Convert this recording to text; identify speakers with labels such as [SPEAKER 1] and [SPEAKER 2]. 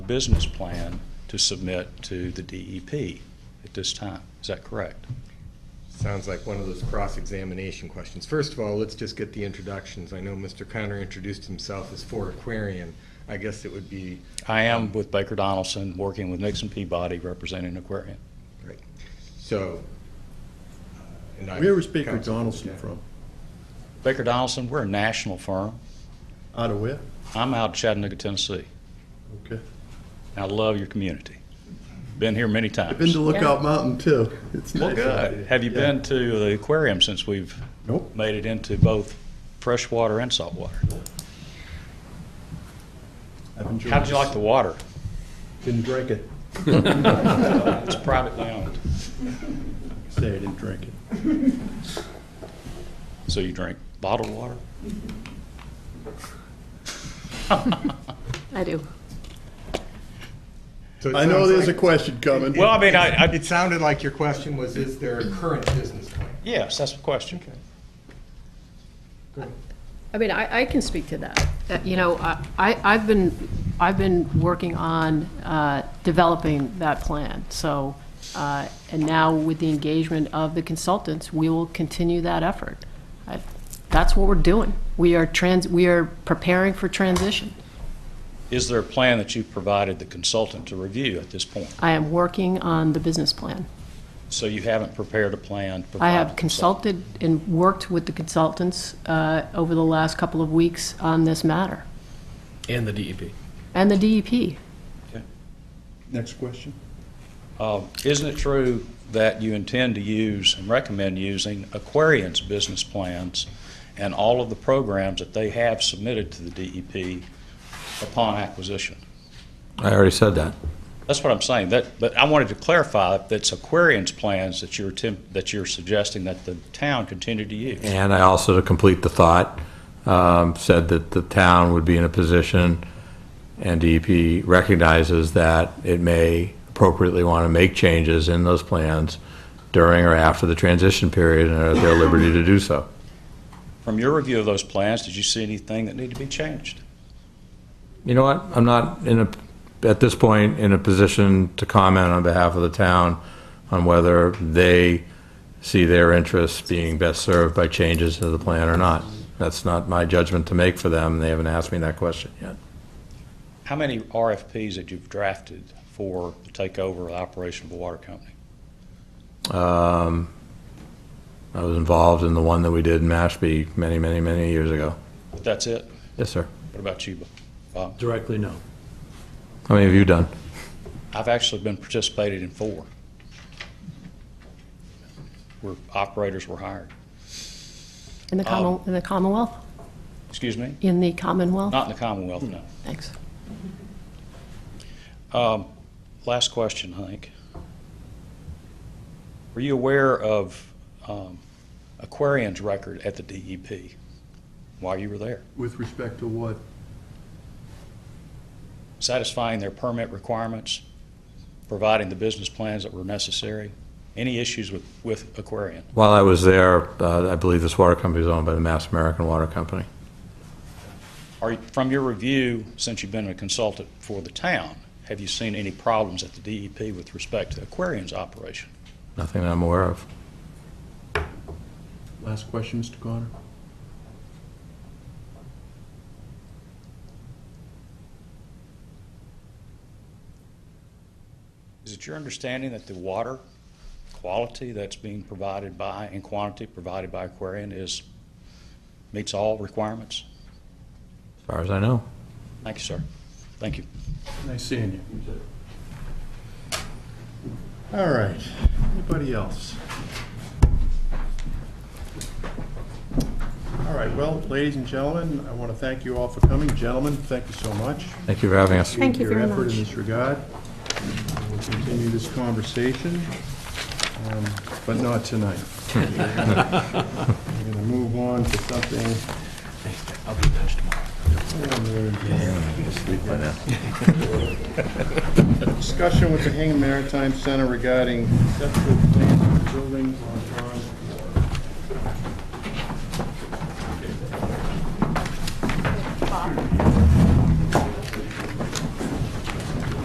[SPEAKER 1] business plan to submit to the DEP at this time. Is that correct?
[SPEAKER 2] Sounds like one of those cross-examination questions. First of all, let's just get the introductions. I know Mr. Connor introduced himself as for Aquarian. I guess it would be,
[SPEAKER 1] I am with Baker Donaldson, working with Nixon Peabody, representing Aquarian.
[SPEAKER 2] right, so. uh, and I'm
[SPEAKER 3] Where was Baker
[SPEAKER 2] counsel.
[SPEAKER 3] Donaldson from?
[SPEAKER 1] Baker Donaldson, we're a national firm.
[SPEAKER 3] Out of where?
[SPEAKER 1] I'm out of Chattanooga, Tennessee.
[SPEAKER 3] Okay.
[SPEAKER 1] I love your community. Been here many times.
[SPEAKER 3] I've been to Lookout Mountain too. It's
[SPEAKER 1] Well,
[SPEAKER 3] nice out
[SPEAKER 1] good.
[SPEAKER 3] there.
[SPEAKER 1] Have you
[SPEAKER 3] Yeah.
[SPEAKER 1] been to the aquarium since we've
[SPEAKER 3] Nope.
[SPEAKER 1] made it into both freshwater and saltwater?
[SPEAKER 3] I've enjoyed
[SPEAKER 1] How'd you like the
[SPEAKER 3] this.
[SPEAKER 1] water?
[SPEAKER 3] Didn't drink it.
[SPEAKER 1] It's privately owned.
[SPEAKER 3] Say I didn't drink it.
[SPEAKER 1] So you drink bottled water?
[SPEAKER 4] I do.
[SPEAKER 2] So it
[SPEAKER 3] I know
[SPEAKER 2] sounds
[SPEAKER 3] there's a
[SPEAKER 2] like-
[SPEAKER 3] question coming.
[SPEAKER 1] Well, I mean, I, I,
[SPEAKER 2] It sounded like your question was, is there a current business plan?
[SPEAKER 1] yes, that's the question.
[SPEAKER 2] Go ahead.
[SPEAKER 4] I mean, I, I can speak to that. Uh, You know, I, I- I've been, I've been working on uh, developing that plan, so, uh, and now with the engagement of the consultants, we will continue that effort. I- That's what we're doing. We are trans, we are preparing for transition.
[SPEAKER 1] Is there a plan that you've provided the consultant to review at this point?
[SPEAKER 4] I am working on the business plan.
[SPEAKER 1] So you haven't prepared a plan? to provide
[SPEAKER 4] I
[SPEAKER 1] the
[SPEAKER 4] have
[SPEAKER 1] consultant?
[SPEAKER 4] consulted and worked with the consultants uh, over the last couple of weeks on this matter,
[SPEAKER 5] And the E DEP.
[SPEAKER 4] and the E DEP.
[SPEAKER 3] Next question.
[SPEAKER 1] Uh, Isn't it true that you intend to use and recommend using Aquarian's business plans and all of the programs that they have submitted to the DEP upon acquisition?
[SPEAKER 6] I already said that.
[SPEAKER 1] That's what I'm saying, that, but I wanted to clarify that it's Aquarian's plans that you're attempt, that you're suggesting that the town continue to use.
[SPEAKER 6] And I also, to complete the thought, um, said that the town would be in a position, and DEP recognizes that it may appropriately want to make changes in those plans during or after the transition period, and are at their liberty to do so.
[SPEAKER 1] From your review of those plans, did you see anything that needed to be changed?
[SPEAKER 6] You know what? I'm not in a, at this point, in a position to comment on behalf of the town on whether they see their interests being best served by changes to the plan or not. That's not my judgment to make for them. They haven't asked me that question yet.
[SPEAKER 1] How many RFPs that you've drafted for the takeover of the operation of the water company?
[SPEAKER 6] Um, I was involved in the one that we did in Mashpee many, many, many years ago.
[SPEAKER 1] But that's it?
[SPEAKER 6] Yes, sir.
[SPEAKER 1] What about you, Bob?
[SPEAKER 5] Directly, no.
[SPEAKER 6] How many have you done?
[SPEAKER 1] I've actually been participated in four. Where operators were hired.
[SPEAKER 4] In the common, in the Commonwealth?
[SPEAKER 1] Excuse me?
[SPEAKER 4] In the Commonwealth?
[SPEAKER 1] Not in the Commonwealth, no.
[SPEAKER 4] Thanks.
[SPEAKER 1] Last question, Hank. Were you aware of um, Aquarian's record at the DEP while you were there,
[SPEAKER 3] With respect to what?
[SPEAKER 1] satisfying their permit requirements, providing the business plans that were necessary? Any issues with, with Aquarian?
[SPEAKER 6] While I was there, uh, I believe this water company is owned by the Mass American Water Company.
[SPEAKER 1] Are, from your review, since you've been a consultant for the town, have you seen any problems at the DEP with respect to Aquarian's operation?
[SPEAKER 6] Nothing that I'm aware of.
[SPEAKER 3] Last question, Mr. Connor.
[SPEAKER 1] Is it your understanding that the water quality that's being provided by and quantity provided by Aquarian is, meets all requirements?
[SPEAKER 6] As far as I know.
[SPEAKER 1] Thank you, sir. Thank you.
[SPEAKER 3] Nice seeing you. All right. Anybody else? All right, well, ladies and gentlemen, I want to thank you all for coming. Gentlemen, thank you so much.
[SPEAKER 6] Thank you for having us.
[SPEAKER 4] Thank you very
[SPEAKER 3] Your effort in
[SPEAKER 4] much.
[SPEAKER 3] this regard. We'll continue this conversation, um, but not tonight. We're going to move on to something. I'll be in touch tomorrow. Discussion with the Hingham Maritime Center regarding conceptual plans for buildings on John